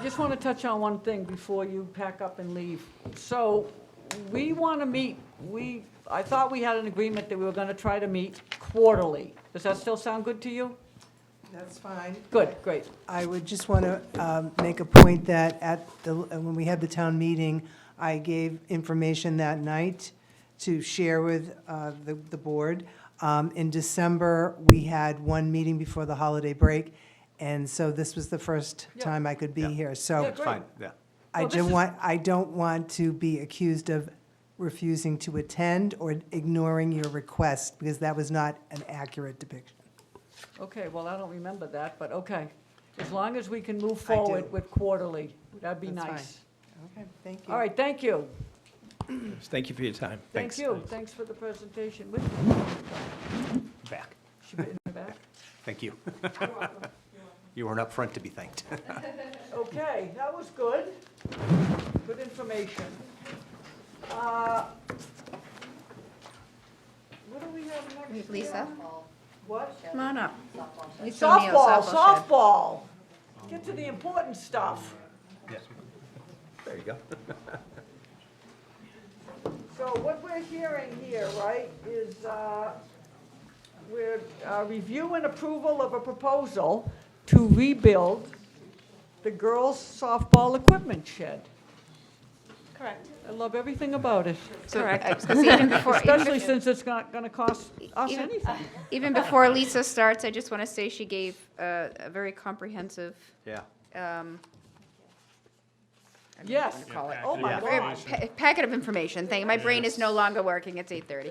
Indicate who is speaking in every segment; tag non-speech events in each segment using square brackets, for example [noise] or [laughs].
Speaker 1: I just want to touch on one thing before you pack up and leave. So we want to meet, we, I thought we had an agreement that we were going to try to meet quarterly. Does that still sound good to you?
Speaker 2: That's fine.
Speaker 1: Good, great.
Speaker 2: I would just want to um, make a point that at the, when we had the town meeting, I gave information that night to share with uh, the, the board. Um, In December, we had one meeting before the holiday break, and so this was the first
Speaker 1: Yeah.
Speaker 2: time I could be
Speaker 3: Yeah.
Speaker 2: here.
Speaker 1: Yeah,
Speaker 2: So
Speaker 1: great.
Speaker 3: Fine, yeah.
Speaker 2: I
Speaker 1: Well, this
Speaker 2: don't
Speaker 1: is-
Speaker 2: want, I don't want to be accused of refusing to attend or ignoring your request, because that was not an accurate depiction.
Speaker 1: Okay, well, I don't remember that, but okay. As long as we can move
Speaker 2: I do.
Speaker 1: forward with quarterly, that'd be
Speaker 2: That's fine.
Speaker 1: nice.
Speaker 2: Okay, thank
Speaker 1: All right, thank you.
Speaker 3: Thank you for your time.
Speaker 1: Thank
Speaker 3: Thanks.
Speaker 1: you. Thanks for the presentation. Would-
Speaker 3: Back.
Speaker 1: should we- in the back?
Speaker 3: Thank you. [laughs] You weren't up front to be thanked.
Speaker 1: Okay, that was good. Good information. Uh, What do we have next?
Speaker 4: Lisa?
Speaker 1: What?
Speaker 4: Come on up. Lisa O'Neill,
Speaker 1: Softball,
Speaker 4: shed.
Speaker 1: softball. Get to the important stuff.
Speaker 3: There you go.
Speaker 1: So what we're hearing here, right, is uh, we're uh, review and approval of a proposal to rebuild the girls' softball equipment shed.
Speaker 5: Correct.
Speaker 1: I love everything about it,
Speaker 4: So I was gonna say, even before- even
Speaker 1: especially since it's not going to cost us
Speaker 4: Even-
Speaker 1: anything.
Speaker 4: bef- Even before Lisa starts, I just want to say she gave uh, a very comprehensive,
Speaker 3: Yeah.
Speaker 4: um,
Speaker 1: Yes.
Speaker 4: call it,
Speaker 1: Oh, my
Speaker 3: Yeah.
Speaker 4: very
Speaker 1: God.
Speaker 4: pa- packet of information thing. My brain is no longer working. It's 8:30.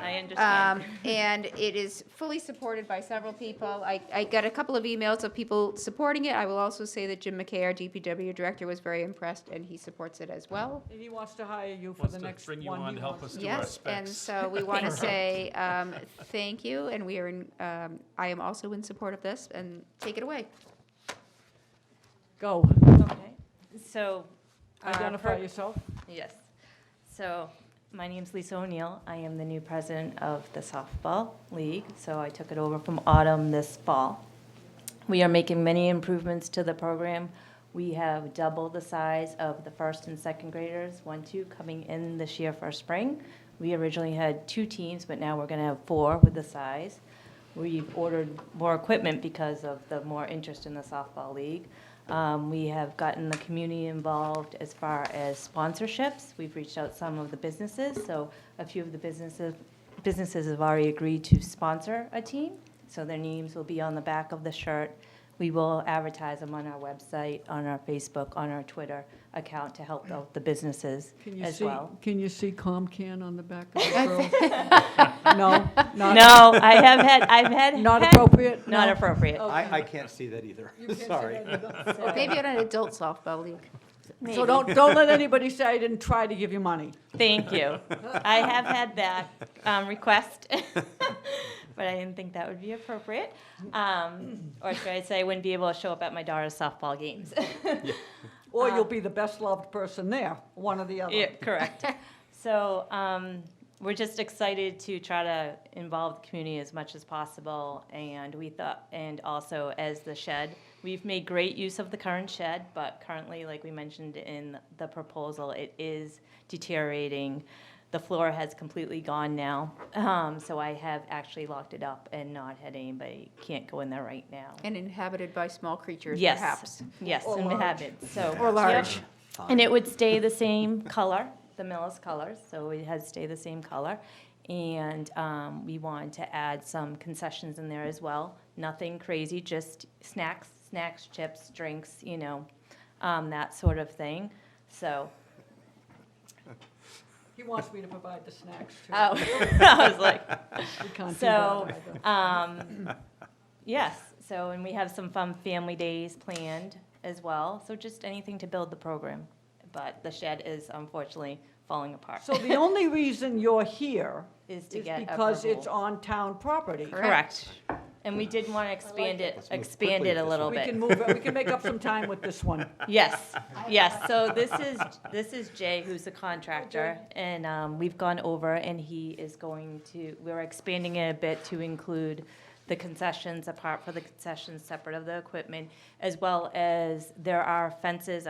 Speaker 5: I understand.
Speaker 4: Um, And it is fully supported by several people. I, I got a couple of emails of people supporting it. I will also say that Jim McKay, our DPW director, was very impressed, and he supports it as well.
Speaker 1: And he wants to hire you for
Speaker 6: Wants
Speaker 1: the
Speaker 6: to
Speaker 1: next one.
Speaker 6: bring you on
Speaker 1: he
Speaker 6: to help
Speaker 1: wants-
Speaker 6: us do our
Speaker 4: Yes, and
Speaker 6: specs.
Speaker 4: so we
Speaker 6: [laughs]
Speaker 4: want to say um, thank you, and we are in, um, I am also in support of this, and take it away.
Speaker 1: Go,
Speaker 5: Okay. So. our
Speaker 1: identify
Speaker 5: pur-
Speaker 1: yourself.
Speaker 5: Yes. So my name's Lisa O'Neill. I am the new president of the softball league, so I took it over from Autumn this fall. We are making many improvements to the program. We have doubled the size of the first and second graders, one, two, coming in this year for spring. We originally had two teams, but now we're going to have four with the size. We've ordered more equipment because of the more interest in the softball league. Um, we have gotten the community involved as far as sponsorships. We've reached out some of the businesses, so a few of the businesses businesses have already agreed to sponsor a team, so their names will be on the back of the shirt. We will advertise them on our website, on our Facebook, on our Twitter account to help out the businesses
Speaker 1: Can you
Speaker 5: as
Speaker 1: see,
Speaker 5: well.
Speaker 1: can you see Comcan on the back of the girl? [laughs] No, not,
Speaker 5: No, I have had, I've had.
Speaker 1: not
Speaker 5: had-
Speaker 1: appropriate? Oh,
Speaker 5: Not
Speaker 1: No.
Speaker 5: appropriate.
Speaker 3: I, I can't see that either. Sorry.
Speaker 6: [laughs]
Speaker 4: Or maybe on an adult softball league.
Speaker 1: So don't, don't let anybody say I didn't try to give you money.
Speaker 5: Thank you. I have had that um,
Speaker 1: [laughs]
Speaker 5: request, but I didn't think that would be appropriate. Um, Or should I say, I wouldn't be able to show up at my daughter's softball games.
Speaker 1: Or you'll be the best-loved person there, one or the [laughs]
Speaker 5: Yeah,
Speaker 1: other.
Speaker 5: correct. So um, we're just excited to try to involve the community as much as possible. And we thought, and also as the shed, we've made great use of the current shed, but currently, like we mentioned in the proposal, it is deteriorating. The floor has completely gone now. Um, So I have actually locked it up and not had anybody, can't go in there right now.
Speaker 4: And inhabited by small creatures,
Speaker 5: Yes.
Speaker 4: perhaps.
Speaker 5: Yes,
Speaker 1: Or
Speaker 5: and
Speaker 1: large.
Speaker 5: habits, so.
Speaker 4: Or large.
Speaker 5: Yep. And it would stay the same color, the Millis colors, so it has stay the same color. And um, we wanted to add some concessions in there as well. Nothing crazy, just snacks, snacks, chips, drinks, you know, um, that sort of thing. So,
Speaker 1: He wants me to provide the snacks, too.
Speaker 5: oh, [laughs] I was like,
Speaker 1: We can't do
Speaker 5: so,
Speaker 1: that either.
Speaker 5: um, yes, so, and we have some fun family days planned as well. So just anything to build the program. But the shed is unfortunately falling apart.
Speaker 1: So the only reason you're here
Speaker 5: Is
Speaker 1: is
Speaker 5: to get
Speaker 1: because it's
Speaker 5: approval.
Speaker 1: on town property.
Speaker 5: Correct. And we did want to expand it,
Speaker 3: Let's move
Speaker 5: expand
Speaker 3: quickly
Speaker 5: it
Speaker 3: with
Speaker 5: a
Speaker 3: this
Speaker 5: little
Speaker 1: We can
Speaker 5: bit.
Speaker 1: move, we can make
Speaker 5: [laughs]
Speaker 1: up some time with this one.
Speaker 5: Yes, yes. So this is, this is Jay, who's the contractor, and um, we've gone over, and he is going to, we're expanding it a bit to include the concessions, apart for the concessions separate of the equipment, as well as there are fences